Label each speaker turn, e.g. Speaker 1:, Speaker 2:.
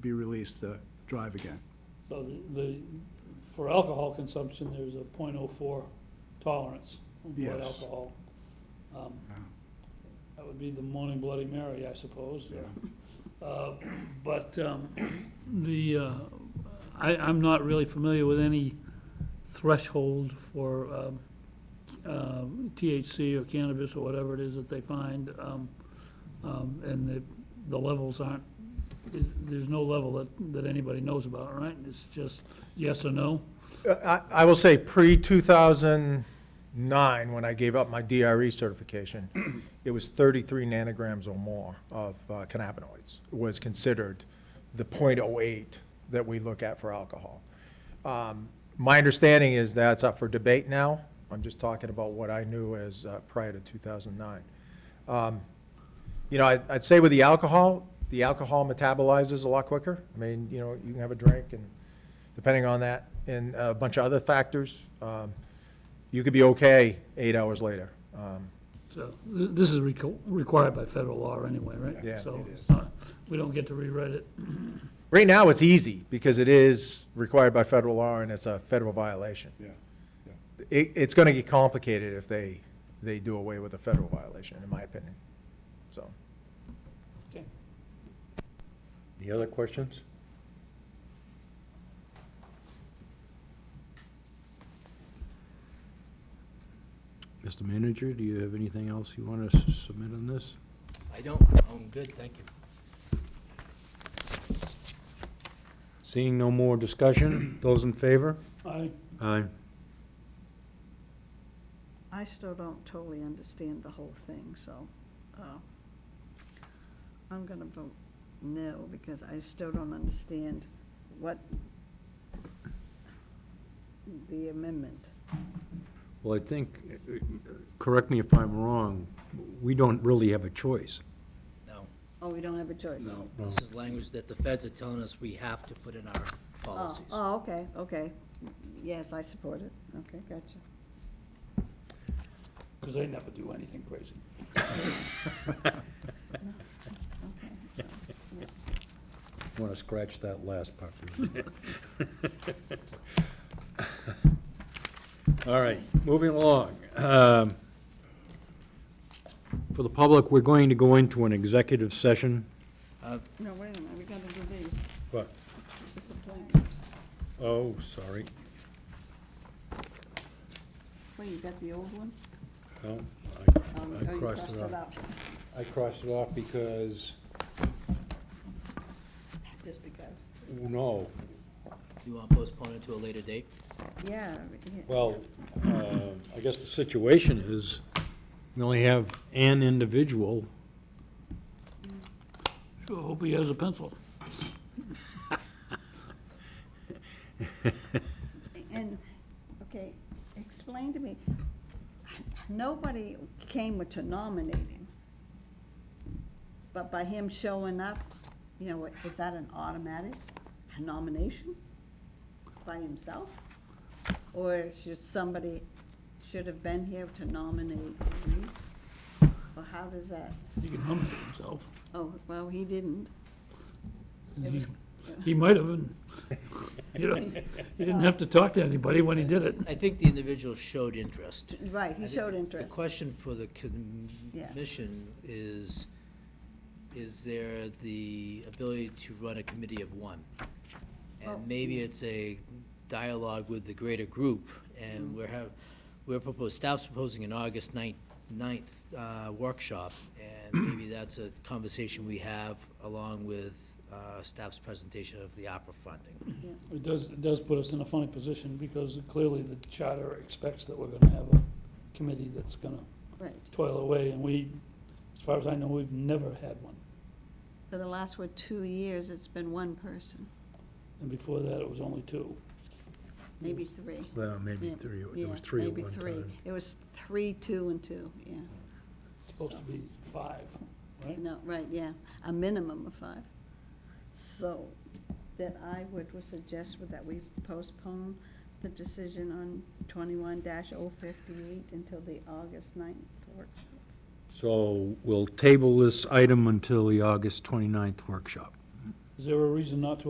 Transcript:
Speaker 1: be released to drive again.
Speaker 2: So the- the, for alcohol consumption, there's a .04 tolerance on blood
Speaker 1: Yes.
Speaker 2: alcohol. Um,
Speaker 1: Yeah.
Speaker 2: That would be the morning Bloody Mary, I suppose. Uh, But um, the, uh, I, I'm not really familiar with any threshold for um, uh, THC or cannabis or whatever it is that they find. um, um, And the, the levels aren't, there's- there's no level that, that anybody knows about, right? It's just yes or no?
Speaker 3: I, I will say pre-2009, when I gave up my DRE certification, it was 33 nanograms or more of uh, cannabinoids was considered the .08 that we look at for alcohol. Um, My understanding is that's up for debate now. I'm just talking about what I knew as uh, prior to 2009. Um, You know, I- I'd say with the alcohol, the alcohol metabolizes a lot quicker. I mean, you know, you can have a drink and depending on that and a bunch of other factors, um, you could be okay eight hours later. Um,
Speaker 2: So th- this is reco- required by federal law anyway, right?
Speaker 3: Yeah,
Speaker 2: So
Speaker 1: it
Speaker 2: it's
Speaker 1: is.
Speaker 2: not- we don't get to rewrite it.
Speaker 3: Right now, it's easy because it is required by federal law and it's a federal violation.
Speaker 1: Yeah.
Speaker 3: It, it's going to get complicated if they, they do away with a federal violation, in my opinion. So,
Speaker 2: Okay.
Speaker 4: Any other questions? Mr. Manager, do you have anything else you want to submit on this?
Speaker 5: I don't, I'm good, thank you.
Speaker 4: Seeing no more discussion, those in favor?
Speaker 2: Aye.
Speaker 4: Aye.
Speaker 6: I still don't totally understand the whole thing, so uh, I'm going to vote no, because I still don't understand what the amendment.
Speaker 4: Well, I think, uh, correct me if I'm wrong, we don't really have a choice.
Speaker 5: No,
Speaker 6: Oh, we don't have a choice?
Speaker 5: no, this is language that the feds are telling us we have to put in our
Speaker 6: Oh,
Speaker 5: policies.
Speaker 6: oh, okay, okay. Yes, I support it. Okay, gotcha.
Speaker 2: Because they never do anything crazy.
Speaker 6: Okay, so,
Speaker 4: Want to scratch that last part. All right, moving along. Um, For the public, we're going to go into an executive session.
Speaker 6: No, wait a minute, we got to do these.
Speaker 4: What?
Speaker 6: This is blank.
Speaker 4: Oh, sorry.
Speaker 6: Wait, you got the old one?
Speaker 4: No,
Speaker 6: Um,
Speaker 4: I-
Speaker 6: oh,
Speaker 4: I
Speaker 6: you
Speaker 4: crossed it off. I crossed it off because,
Speaker 6: Just because.
Speaker 4: no,
Speaker 5: You want to postpone it to a later date?
Speaker 6: Yeah, yeah.
Speaker 4: well, uh, I guess the situation is, we only have an individual
Speaker 2: Sure, hope he has a pencil.
Speaker 6: And, okay, explain to me, nobody came to nominate him. But by him showing up, you know, is that an automatic nomination by himself? Or should somebody, should have been here to nominate me? Or how does that,
Speaker 2: He can nominate himself.
Speaker 6: oh, well, he didn't. It was-
Speaker 2: He might have, and, you know, he didn't have to talk to anybody when he did it.
Speaker 5: I think the individual showed interest.
Speaker 6: Right, he showed
Speaker 5: The
Speaker 6: interest.
Speaker 5: question for the
Speaker 6: Yeah.
Speaker 5: commission is, is there the ability to run a committee of one?
Speaker 6: Oh.
Speaker 5: And maybe it's a dialogue with the greater group,
Speaker 6: Mm-hmm.
Speaker 5: and we're have, we're proposed, staff's proposing an August ninth, ninth, uh, workshop, and maybe that's a conversation we have along with, uh, staff's presentation of the opera funding.
Speaker 2: It does, it does put us in a funny position because clearly the charter expects that we're gonna have a committee that's gonna
Speaker 6: Right.
Speaker 2: toil away, and we, as far as I know, we've never had one.
Speaker 6: For the last, what, two years, it's been one person,
Speaker 2: And before that, it was only two.
Speaker 6: maybe three.
Speaker 4: Well, maybe
Speaker 6: Yeah,
Speaker 4: three,
Speaker 6: yeah,
Speaker 4: there was three at
Speaker 6: maybe
Speaker 4: one
Speaker 6: three.
Speaker 4: time.
Speaker 6: It was three, two, and two, yeah.
Speaker 2: It's supposed to be five, right?
Speaker 6: No, right, yeah, a minimum of five. So that I would would suggest would that we postpone the decision on twenty-one 58 until the August 9th workshop.
Speaker 4: So we'll table this item until the August 29th workshop.
Speaker 2: Is there a reason not to